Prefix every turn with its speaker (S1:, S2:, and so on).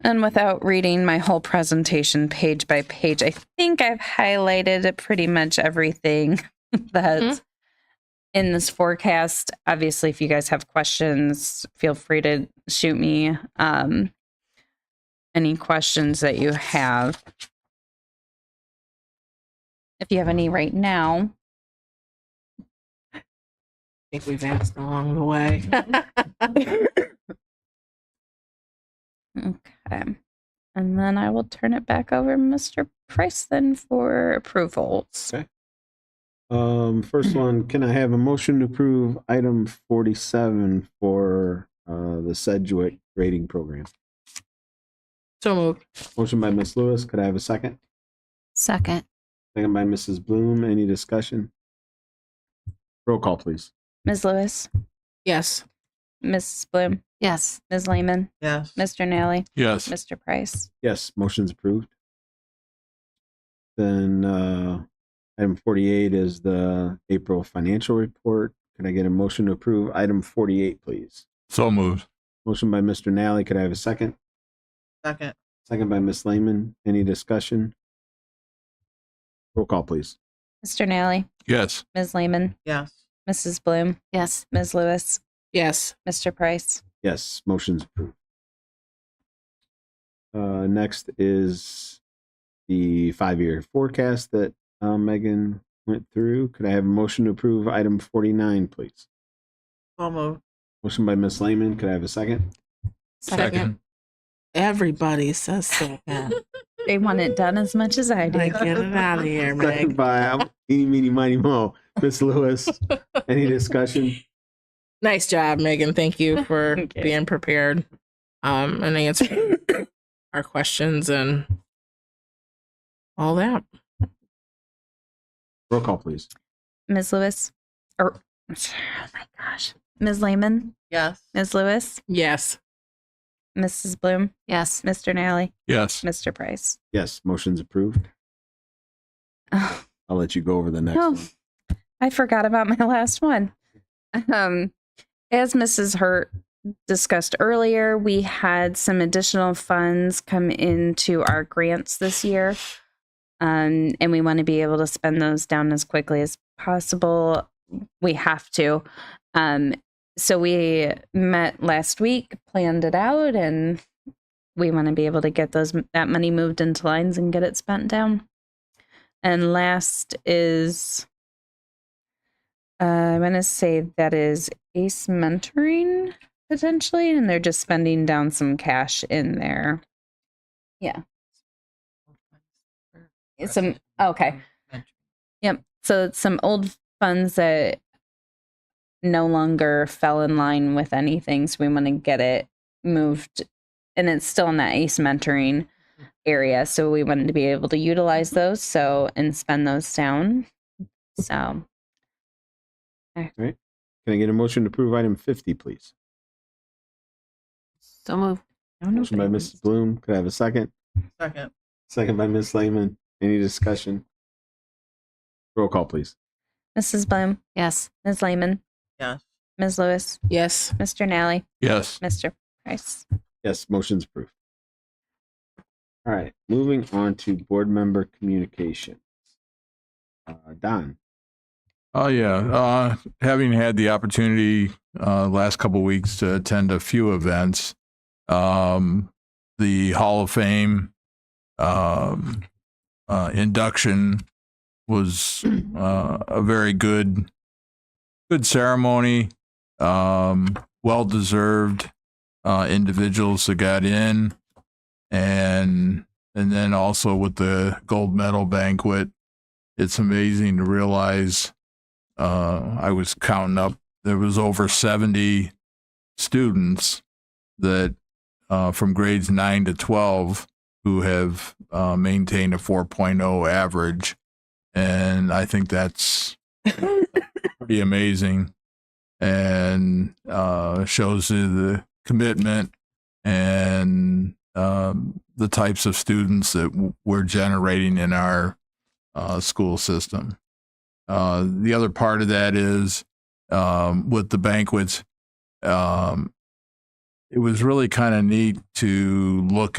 S1: And without reading my whole presentation page by page, I think I've highlighted pretty much everything that's in this forecast. Obviously, if you guys have questions, feel free to shoot me um, any questions that you have. If you have any right now,
S2: I think we've asked along the way.
S1: okay. And then I will turn it back over to Mr. Price then for approvals.
S3: Um, first one, can I have a motion to approve item forty-seven for, uh, the Sedgwick grading program?
S2: so moved.
S3: Motion by Ms. Lewis, could I have a second?
S4: Second.
S3: Second by Mrs. Bloom, any discussion? Roll call, please.
S1: Ms. Lewis,
S2: Yes.
S1: Ms. Bloom,
S4: Yes.
S1: Ms. Lehman,
S2: Yes.
S1: Mr. Nally,
S5: Yes.
S1: Mr. Price.
S3: Yes, motion's approved. Then, uh, item forty-eight is the April financial report. Can I get a motion to approve item forty-eight, please?
S5: So moved.
S3: Motion by Mr. Nally, could I have a second?
S2: Second.
S3: Second by Ms. Lehman. Any discussion? Roll call, please.
S1: Mr. Nally,
S5: Yes.
S1: Ms. Lehman,
S2: Yes.
S1: Mrs. Bloom,
S4: Yes.
S1: Ms. Lewis,
S2: Yes.
S1: Mr. Price.
S3: Yes, motion's approved. Uh, next is the five-year forecast that uh, Megan went through. Could I have a motion to approve item forty-nine, please?
S2: So moved.
S3: Motion by Ms. Lehman. Could I have a second?
S2: Second. Everybody says second.
S1: They want it done as much as I do.
S2: like, get it out of here,
S3: Second
S2: Meg.
S3: by Eeny, Meeny, Miny, Mo. Ms. Lewis, any discussion?
S2: Nice job, Megan. Thank you for
S1: Okay.
S2: being prepared um, and answering our questions and all that.
S3: Roll call, please.
S1: Ms. Lewis, or oh my gosh, Ms. Lehman,
S2: Yes.
S1: Ms. Lewis,
S2: Yes.
S1: Mrs. Bloom,
S4: Yes.
S1: Mr. Nally,
S5: Yes.
S1: Mr. Price.
S3: Yes, motion's approved.
S1: Oh,
S3: I'll let you go over the next
S1: Oh.
S3: one.
S1: I forgot about my last one. Um, as Mrs. Hurt discussed earlier, we had some additional funds come into our grants this year. Um, and we want to be able to spend those down as quickly as possible. We have to. Um, so we met last week, planned it out, and we want to be able to get those that money moved into lines and get it spent down. And last is uh, I'm going to say that is Ace Mentoring potentially, and they're just spending down some cash in there. Some okay. Yep. So it's some old funds that no longer fell in line with anything. So we want to get it moved, and it's still in that ACE Mentoring area. So we wanted to be able to utilize those so and spend those down. So
S3: Can I get a motion to approve item fifty, please?
S4: So move.
S3: Motion by Mrs. Bloom. Could I have a second?
S2: Second.
S3: Second by Ms. Lehman. Any discussion? Roll call, please.
S1: Mrs. Bloom,
S4: Yes.
S1: Ms. Lehman,
S2: Yes.
S1: Ms. Lewis,
S2: Yes.
S1: Mr. Nally,
S5: Yes.
S1: Mr. Price.
S3: Yes, motion's approved. All right, moving on to board member communication. Uh, Don,
S5: Oh, yeah. Uh, having had the opportunity uh, last couple weeks to attend a few events, um, the Hall of Fame um, uh, induction was uh, a very good, good ceremony. Um, well deserved uh, individuals that got in, and and then also with the gold medal banquet, it's amazing to realize uh, I was counting up. There was over seventy students that uh, from grades nine to twelve who have uh, maintained a 4.0 average, and I think that's pretty amazing, and uh, shows you the commitment and um, the types of students that w- we're generating in our uh, school system. Uh, the other part of that is um, with the banquets, um, it was really kind of neat to look